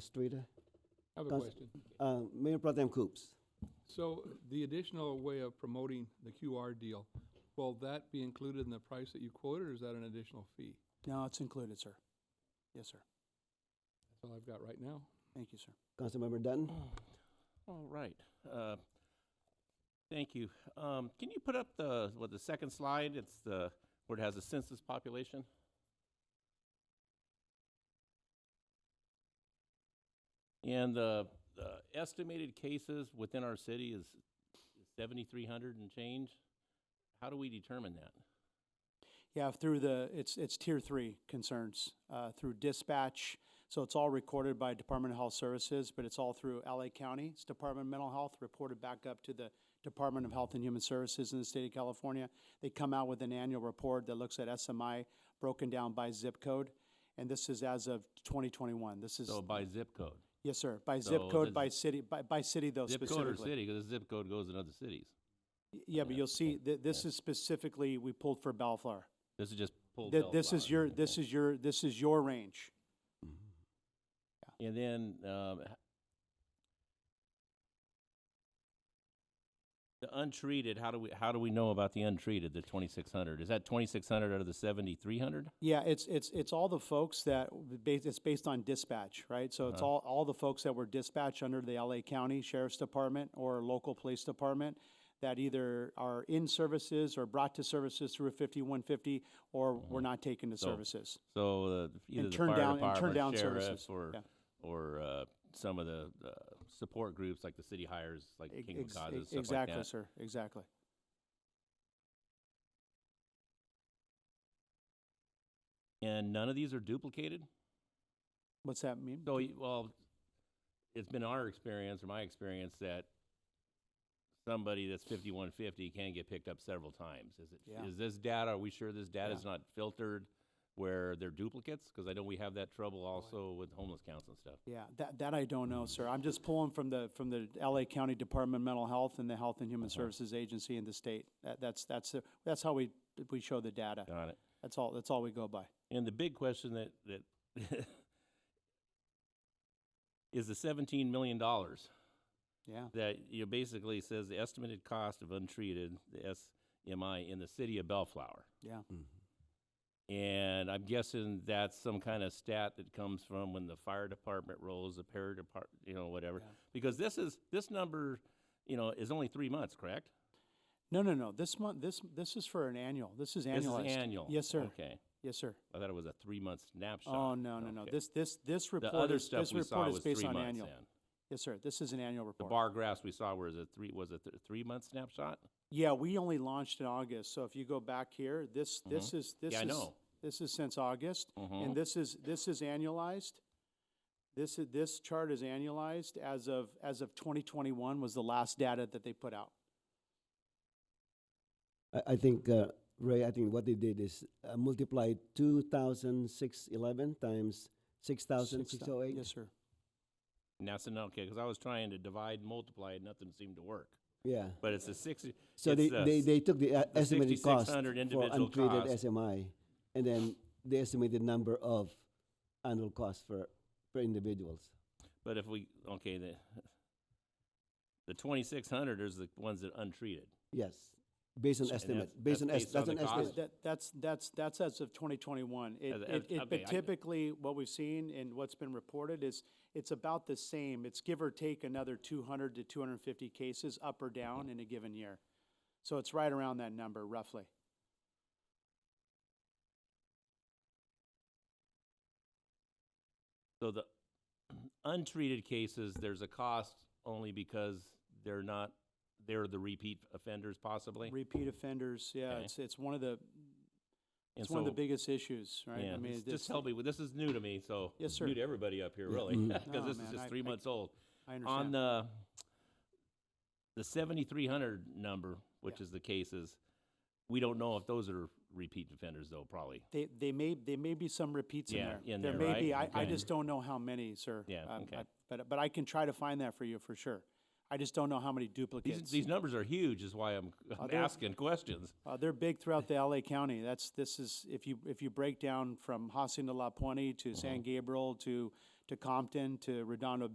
Castrita. I have a Cons- question. Uh, Mayor Protem Coops. So the additional way of promoting the QR deal, will that be included in the price that you quoted, or is that an additional fee? No, it's included, sir. Yes, sir. That's all I've got right now. Thank you, sir. Councilmember Dutton. All right. Uh, Thank you. Um, Can you put up the, what, the second slide? It's the, where it has a census population? And the the estimated cases within our city is 7,300 and change. How do we determine that? Yeah, through the, it's, it's tier three concerns, uh, through dispatch. So it's all recorded by Department of Health Services, but it's all through LA County. It's Department of Mental Health, reported back up to the Department of Health and Human Services in the state of California. They come out with an annual report that looks at SMI broken down by zip code. And this is as of twenty twenty-one. This is, So by zip code? yes, sir, by zip So code, does- by city, by, by city though Zip Oh, specifically. code or city, because the zip code goes in other cities. Y- Yeah, but Yeah, you'll see, that this is specifically, we pulled for Bellflower. This is just pulled Th- This Bellflower. is your, this is your, this is your range. And then, um, h- the untreated, how do we, how do we know about the untreated, the twenty-six hundred? Is that twenty-six hundred out of the seventy-three hundred? Yeah, it's, it's, it's all the folks that, w- ba- it's based on dispatch, right? So Uh-huh. it's all, all the folks that were dispatched under the LA County Sheriff's Department or local police department that either are in services or brought to services through a fifty-one fifty or were not taken to Mm-hmm. So- services. So, uh, either And the turn fire down, and turn down department, services. sheriffs, or, Yeah. or, uh, some of the, uh, support groups like the city hires, like Ex- King ex- e, Causes, stuff like Exactly, that. sir, exactly. And none of these are duplicated? What's that mean? So, y- well, it's been our experience or my experience that somebody that's fifty-one fifty can get picked up several times. Is Yeah. it, is this data, are we sure this data is Yeah. not filtered where they're duplicates? Because I know we have that trouble also with homeless counts and stuff. Yeah, that, that I don't know, sir. I'm just pulling from the, from the LA County Department of Mental Health and the Health and Human Services Agency in the state. That, that's, that's, the- that's how we, we show the data. Got it. That's all, that's all we go by. And the big question that, that is the seventeen million dollars. Yeah, that you know, basically says the estimated cost of untreated the SMI in the city of Bellflower. Yeah. And I'm guessing that's some kind of stat that comes from when the fire department rolls, the para depart, you know, whatever. Yeah. Because this is this number, you know, is only three months, correct? no, no, no, this month, this, this is for an annual, this is annualized. This is annual. Yes, sir, Okay. yes, sir. I thought it was a three month snapshot. Oh, no, no, no, Okay. this, this, this the report other is, stuff this we saw report is was three based on months. annual. in. Yes, sir, this is an annual The report. bar graphs we saw was a three was a th- three month snapshot. Yeah, we only launched in August, so if you go back here, this, this is, this Mm-hmm. Yeah, I is, know. this is since August. Mhm. And this is, this is annualized. This is, this chart is annualized as of, as of twenty twenty-one was the last data that they put out. I, I think, uh, Ray, I think what they did is uh, multiply 2,611 times Six thou- 6,608. Yes, sir. And that's an okay because I was trying to divide, multiply, and nothing seemed to work. Yeah. But it's a sixty. So they, it's a they, s- they took the uh, the estimated cost 6,600 for individual untreated cost. SMI, and then the estimated number of annual costs for, for individuals. But if we okay the the twenty six hundred is the ones that untreated. Yes, based on So- and estimate, that's- based that's on, es- based on that's an the cost? estimate. That, that's, that's, that's as of twenty twenty-one. It, As- it, as- it- okay, but I- typically, what we've seen and what's been reported is, it's about the same. It's give or take another two hundred to two hundred and fifty cases, up or down, Mm-hmm. in a given year. So it's right around that number roughly. So the untreated cases, there's a cost only because they're not they're the repeat offenders possibly. Repeat offenders, yeah, Okay. it's, it's one of the, And it's one of the so- biggest issues, right? Yeah, I mean, it's- it's- just help me. with- This is new to me, so Yes, sir. new to everybody up here, Yeah. really, Mhm. because No, this man, is just I- three I- months old. I understand. On the the seventy three hundred number, which is the cases, we don't know if those are repeat offenders, though. Probably. They, they may, they may be some repeats in Yeah, there. in there, may right? be, I, I Okay. just don't know how many, sir. Yeah, Um, okay. I- But, but I can try to find that for you for sure. I just don't know how many These, duplicates. these numbers are huge, is why I'm, I'm they're- asking questions. Uh, they're big throughout the LA County. Mm-hmm. That's, this is, if you, if you break down from Hacienda La Puente to San Gabriel to to Compton, to Redondo